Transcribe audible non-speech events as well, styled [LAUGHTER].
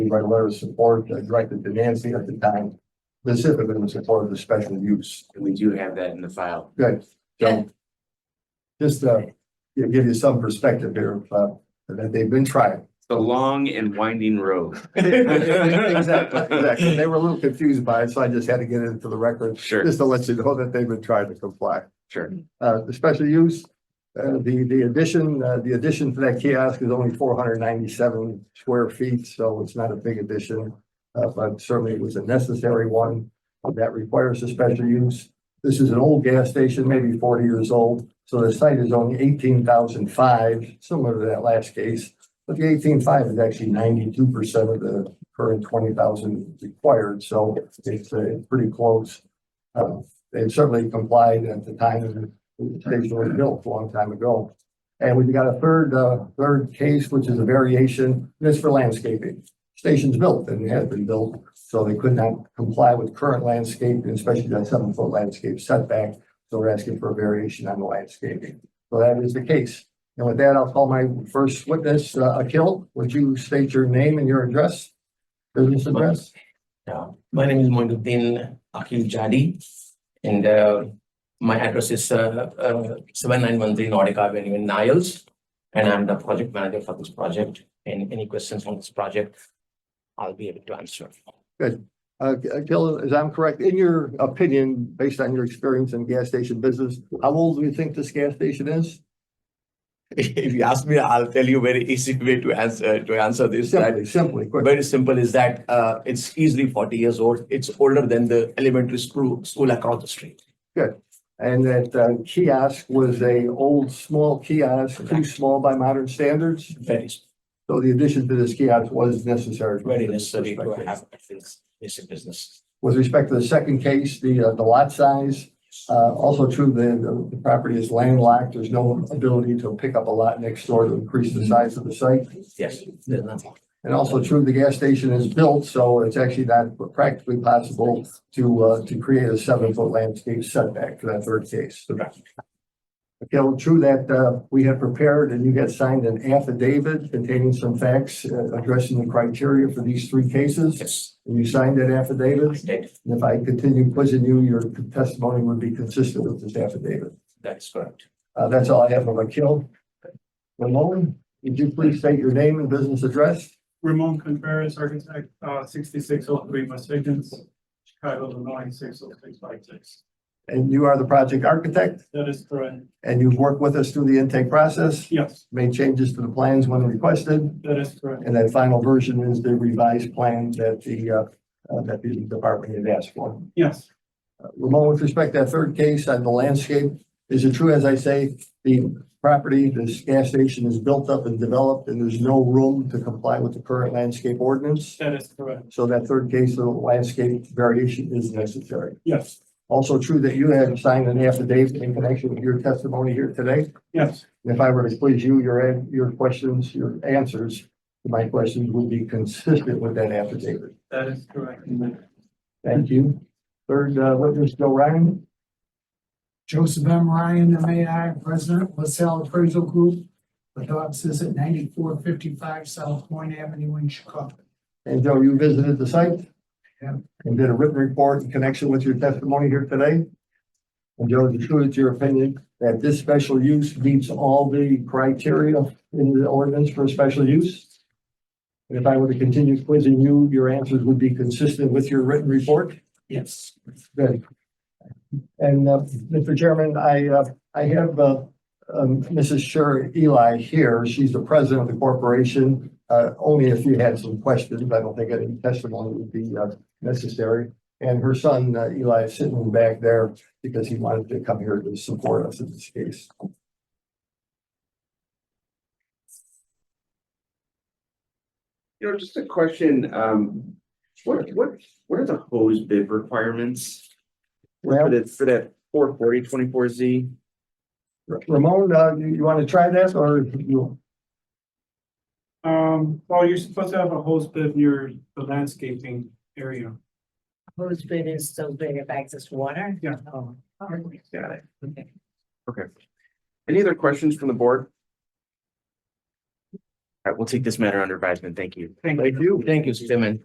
We write a letter of support uh, directed to Nancy at the time, specifically in support of the special use. and we do have that in the file. Good. So just, uh, you know, give you some perspective here, uh, that they've been trying. [LAUGHS] It's The long and winding road. Exactly, exactly. They were a little confused by it, so I just had to get it into the record, Sure, just to let you know that they've been trying to comply. sure. Uh, the special use, uh, the, the addition, uh, the addition to that kiosk is only four hundred ninety-seven square feet, so it's not a big addition. Uh, but certainly it was a necessary one that requires a special use. This is an old gas station, maybe forty years old, so the site is only eighteen thousand five, similar to that last case. But the eighteen five is actually ninety-two percent of the current twenty thousand required, so it's, uh, pretty close. Uh, they certainly complied at the time of the the station was built a long time ago. And we've got a third, uh, third case, which is a variation, this for landscaping. Station's built and has been built, so they could not comply with current landscape, and especially that seven foot landscape setback. So we're asking for a variation on the landscaping. So that is the case. And with that, I'll call my first witness, uh, Akil, would you state your name and your address? Business address? Yeah, my name is Moinuddin Akil Jadi, and uh, my address is uh, seven nine one three Nordic Avenue in Niles. And I'm the project manager for this project, and any questions on this project, I'll be able to answer. Uh, Akil, as I'm correct, in your opinion, based on your experience in gas station business, how old do you think this gas station is? [LAUGHS] If you ask me, I'll tell you very easy way to answer, to answer this. that Simply, simply, quick. Very simple is that uh, it's easily forty years old, it's older than the elementary school, school across the street. And that uh, kiosk was a old, small kiosk, too small by modern standards. Very, So the addition to this kiosk was necessary. very necessary to have this basic business. With respect to the second case, the, uh, the lot size, uh, also true, the, the property is landlocked. There's no ability to pick up a lot next door to increase the size of the site. Yes, there's nothing. And also true, the gas station is built, so it's actually not practically possible to, uh, to create a seven foot landscape setback for that third case. Correct. Okay, well, true that, uh, we had prepared and you had signed an affidavit containing some facts uh, addressing the criteria for these three cases. Yes, And you signed that I affidavit? did. And if I continue quizzing you, your testimony would be consistent with this affidavit. That is correct. Uh, that's all I have on my kill. Ramon, would you please state your name and business address? Ramon Contreras, architect, uh, sixty-six oh three West Higgins, Chicago, Illinois, six oh six five six. And you are the project architect? That is correct. And you've worked with us through the intake process, Yes, made changes to the plans when requested, that is correct. and that final version is the revised plan that the, uh, uh, that the department had asked for. Yes, Uh, Ramon, with respect to that third case on the landscape, is it true, as I say, the property, this gas station is built up and developed, and there's no room to comply with the current landscape ordinance? that is correct. So that third case of landscape variation is necessary. Yes, Also true that you have signed an affidavit in connection with your testimony here today? yes, And If I were to quiz you, your, an- your questions, your answers to my questions would be consistent with that affidavit. that is correct. Thank you. Third uh, witness, Joe Ryan. Joseph M. Ryan, MAI, President, LaSalle Appraisal Group, with offices at ninety-four fifty-five South Point Avenue in Chicago. And Joe, you visited the site? Yeah. And did a written report in connection with your testimony here today? And Joe, is it true it's your opinion that this special use meets all the criteria in the ordinance for special use? And if I were to continue quizzing you, your answers would be consistent with your written report? Yes. Good. And, uh, Mr. Chairman, I, uh, I have, uh, um, Mrs. Sher Eli here. She's the president of the corporation. Uh, only if you had some questions, I don't think any testimony would be, uh, necessary. And her son uh, Eli is sitting back there because he wanted to come here to support us in this case. You know, just a question, um, what, what, what are the hose bid requirements? For Well, that, for that four forty twenty-four Z? Ramon, uh, you, you want to try that or you? Um, well, you're supposed to have a host bid near the landscaping area. Whose bid is those big of access water? Yeah. Oh. Got it. Okay. Okay. Any other questions from the board? right, we'll take this matter under advisement. Thank you. Thank you. Thank you, Chairman.